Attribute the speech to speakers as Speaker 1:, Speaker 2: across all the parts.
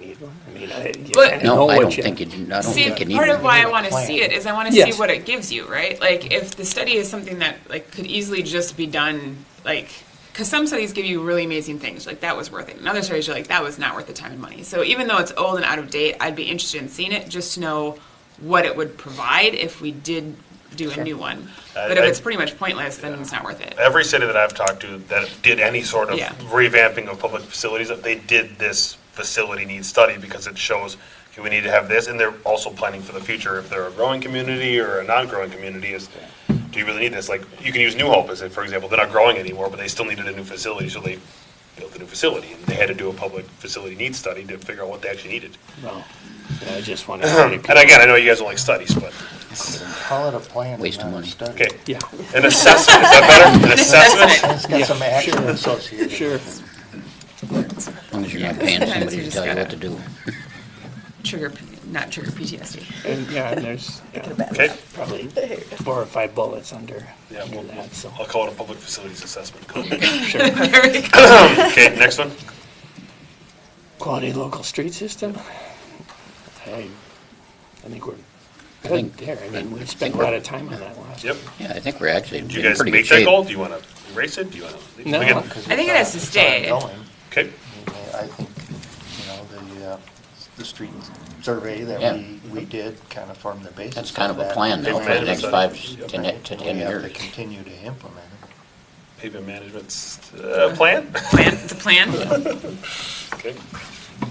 Speaker 1: I mean, I, you
Speaker 2: But-
Speaker 1: kinda know
Speaker 3: No, I
Speaker 1: what
Speaker 3: don't
Speaker 1: you-
Speaker 3: think it, I don't
Speaker 2: See,
Speaker 3: think it
Speaker 2: part of
Speaker 3: needed.
Speaker 2: why I want to see it is I want to see
Speaker 1: Yes.
Speaker 2: what it gives you, right? Like, if the study is something that like could easily just be done, like, because some studies give you really amazing things, like that was worth it, and other studies are like that was not worth the time and money. So even though it's old and out of date, I'd be interested in seeing it just to know what it would provide if we did do a new one.
Speaker 4: I-
Speaker 2: But if
Speaker 4: I-
Speaker 2: it's pretty much pointless, then it's not worth it.
Speaker 4: Every city that I've talked to that did any sort of
Speaker 2: Yeah.
Speaker 4: revamping of public facilities, that they did this facility needs study because it shows, okay, we need to have this, and they're also planning for the future, if they're a growing community or a non-growing community, is, do you really need this? Like, you can use New Hope as, a- for example, they're not growing anymore, but they still needed a new facility, so they built a new facility, and they had to do a public facility needs study to figure out what they actually needed.
Speaker 1: Well, you know, I just want to.
Speaker 4: And again, I know you guys don't like studies, but,
Speaker 5: Call it a plan.
Speaker 3: Waste of
Speaker 5: not a
Speaker 3: money.
Speaker 5: study.
Speaker 4: okay,
Speaker 1: Yeah,
Speaker 4: an assessment, is that better? An assessment?
Speaker 5: It's got some action associated.
Speaker 1: sure.
Speaker 3: As long as you're not paying somebody to
Speaker 2: Just
Speaker 3: tell you what
Speaker 2: gotta-
Speaker 3: to do.
Speaker 2: Trigger, not trigger PTSD.
Speaker 1: And yeah, and there's yeah,
Speaker 4: Okay,
Speaker 1: probably four or five bullets under,
Speaker 4: Yeah,
Speaker 1: under
Speaker 4: we'll-
Speaker 1: that, so.
Speaker 4: I'll call it a public facilities assessment. Cool.
Speaker 1: Sure.
Speaker 2: There we go.
Speaker 4: Okay, next one.
Speaker 1: Quality local street system? I, I think we're good
Speaker 3: think-
Speaker 1: there. I mean, we
Speaker 3: I
Speaker 1: spent a
Speaker 3: think
Speaker 1: lot of time on that last.
Speaker 4: Yep.
Speaker 3: Yeah, I think we're actually in
Speaker 4: Do you
Speaker 3: pretty good
Speaker 4: guys
Speaker 3: shape.
Speaker 4: make that goal? Do you want to erase it? Do you want to?
Speaker 1: No.
Speaker 5: because
Speaker 2: I think it has to
Speaker 5: it's
Speaker 2: stay.
Speaker 5: ongoing.
Speaker 4: Okay.
Speaker 5: I think, you know, the, uh, the street survey
Speaker 3: Yeah.
Speaker 5: that we, we did kind of formed the basis.
Speaker 3: That's kind of a
Speaker 5: that.
Speaker 3: plan now for the
Speaker 4: Implemented
Speaker 3: next
Speaker 4: it.
Speaker 3: five
Speaker 5: Right,
Speaker 3: to ne- to
Speaker 5: and
Speaker 3: 10
Speaker 5: We have to
Speaker 3: years.
Speaker 5: continue to implement it.
Speaker 4: Pavement management's uh, plan.
Speaker 2: Plan, it's a plan.
Speaker 4: Okay.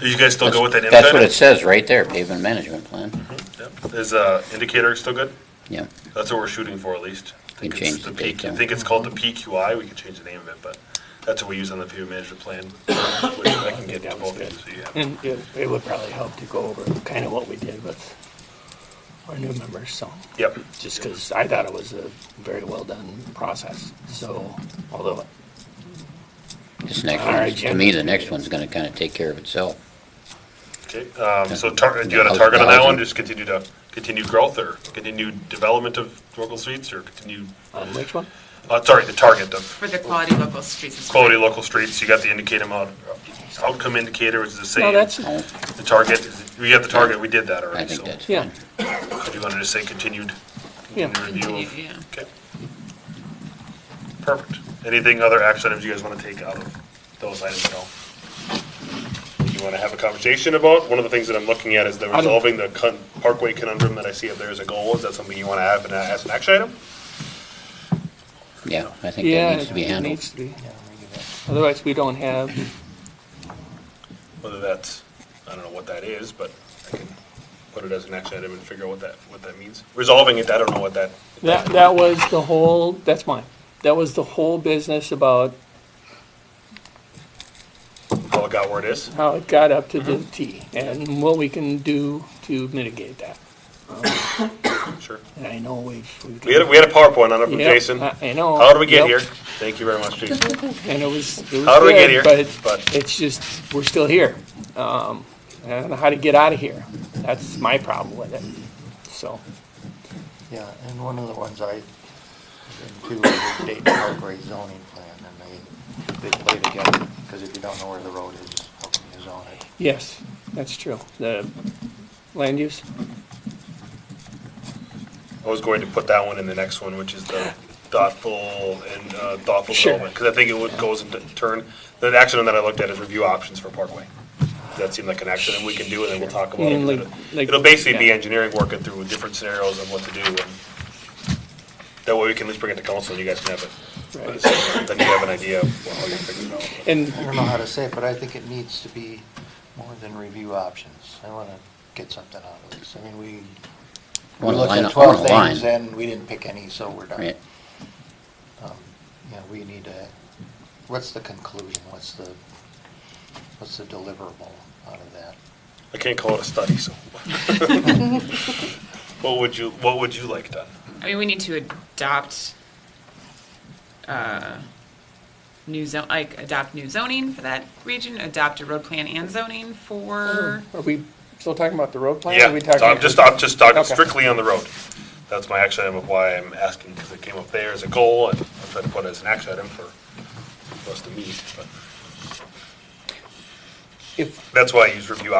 Speaker 4: Do you guys still go with that?
Speaker 3: That's what
Speaker 4: insider?
Speaker 3: it says right there, pavement management plan.
Speaker 4: Yep. Is uh, indicator still good?
Speaker 3: Yeah,
Speaker 4: That's what we're shooting for at least. I
Speaker 3: You
Speaker 4: think
Speaker 3: can
Speaker 4: it's
Speaker 3: change the
Speaker 4: P-
Speaker 3: date,
Speaker 4: I
Speaker 3: though.
Speaker 4: think it's called the PQI. We could change the name of it, but that's what we use on the pavement management plan. which I can get to both ends. So you have.
Speaker 1: And it, it would probably help to go over kind of what we did with our new members, so.
Speaker 4: Yep.
Speaker 1: Just because I thought it was a very well-done process, so, although,
Speaker 3: this next
Speaker 1: All
Speaker 3: one,
Speaker 1: right,
Speaker 3: to
Speaker 1: Jim.
Speaker 3: me, the next one's gonna kind of take care of itself.
Speaker 4: Okay. Um, so tar- do you got a target on that one? Just continue to continue growth or continue development of local streets or continue.
Speaker 1: on Um, which one?
Speaker 4: Uh, sorry, the target of
Speaker 2: For the quality local streets. and-
Speaker 4: quality local streets, you got the indicator mod, outcome indicator is the
Speaker 1: No,
Speaker 4: same.
Speaker 1: that's,
Speaker 3: No,
Speaker 4: The target, we got the target, we did that
Speaker 3: I
Speaker 4: already, so.
Speaker 3: think that's
Speaker 1: yeah,
Speaker 3: fine.
Speaker 4: Do you want to just say continued,
Speaker 1: Yeah.
Speaker 4: continued review of?
Speaker 2: Continued,
Speaker 4: Okay. Perfect. Anything other action items you guys want to take out of those items at all? You want to have a conversation about? One of the things that I'm looking at is the
Speaker 1: don't-
Speaker 4: resolving the con- Parkway conundrum that I see up there as a goal. Is that something you want to have and as an action item?
Speaker 3: Yeah, I think
Speaker 1: yeah,
Speaker 3: that needs to be
Speaker 1: it
Speaker 3: handled.
Speaker 1: needs to be.
Speaker 5: Yeah, we give that-
Speaker 1: Otherwise, we don't have,
Speaker 4: Whether that's, I don't know what that is, but I can put it as an action item and figure out what that, what that means. Resolving it, I don't know what that
Speaker 1: that, that was the whole, that's mine. That was the whole business about
Speaker 4: how it got where it is.
Speaker 1: how it got up to the
Speaker 4: Mm-hmm.
Speaker 1: T and what we can do to mitigate that.
Speaker 4: Sure.
Speaker 1: And I know we've. we've-
Speaker 4: We had, a- we had a PowerPoint on it from
Speaker 1: Yep,
Speaker 4: Jason.
Speaker 1: I I know.
Speaker 4: How did we get
Speaker 1: Yep.
Speaker 4: here? Thank you very much, Jason.
Speaker 1: And it was. it was
Speaker 4: How did we get
Speaker 1: good,
Speaker 4: here?
Speaker 1: But
Speaker 4: But
Speaker 1: it's just, we're still here. Um, I don't know how to get out of here. That's my problem with it. So,
Speaker 5: Yeah, and one of the ones I, included was the Dayton Parkway zoning plan, and they, they play together, because if you don't know where the road is, how can you zone it?
Speaker 1: yes, that's true. The land use,
Speaker 4: I was going to put that one in the next one, which is the thoughtful and uh, thoughtful
Speaker 1: Sure.
Speaker 4: development. Because I think it would, goes into turn, the action that I looked at is review options for Parkway. That seemed like an action that we can do and then we'll talk about
Speaker 1: Mm,
Speaker 4: it.
Speaker 1: like- like-
Speaker 4: It'll basically be
Speaker 1: yeah.
Speaker 4: engineering working through different scenarios of what to do. and That way we can at least bring it to council and you guys can have
Speaker 1: right.
Speaker 4: it. Then you have an idea of how you're figuring it out.
Speaker 1: And
Speaker 5: I don't know how to say it, but I think it needs to be more than review options. I want to get something out of this. I mean, we, we
Speaker 3: Wanna
Speaker 5: looked
Speaker 3: line
Speaker 5: at
Speaker 3: up- wanna
Speaker 5: 12 things
Speaker 3: line,
Speaker 5: and we didn't pick any, so we're done.
Speaker 3: right.
Speaker 5: Um, Yeah, we need to, what's the conclusion? What's the, what's the deliverable out of that?
Speaker 4: I can't call it a study, so. What would you, what would you like done?
Speaker 2: I mean, we need to adopt uh, new zone, like adopt new zoning for that region, adopt a road plan and zoning for.
Speaker 1: are we still talking about the road plan? or are
Speaker 4: Yeah,
Speaker 1: we
Speaker 4: so I'm
Speaker 1: talking-
Speaker 4: just, I'm just talking
Speaker 1: Okay.
Speaker 4: strictly on the road. That's my action item of why I'm asking, because it came up there as a goal, and I'm trying to put it as an action item for for us to meet, but
Speaker 1: If
Speaker 4: that's why I use review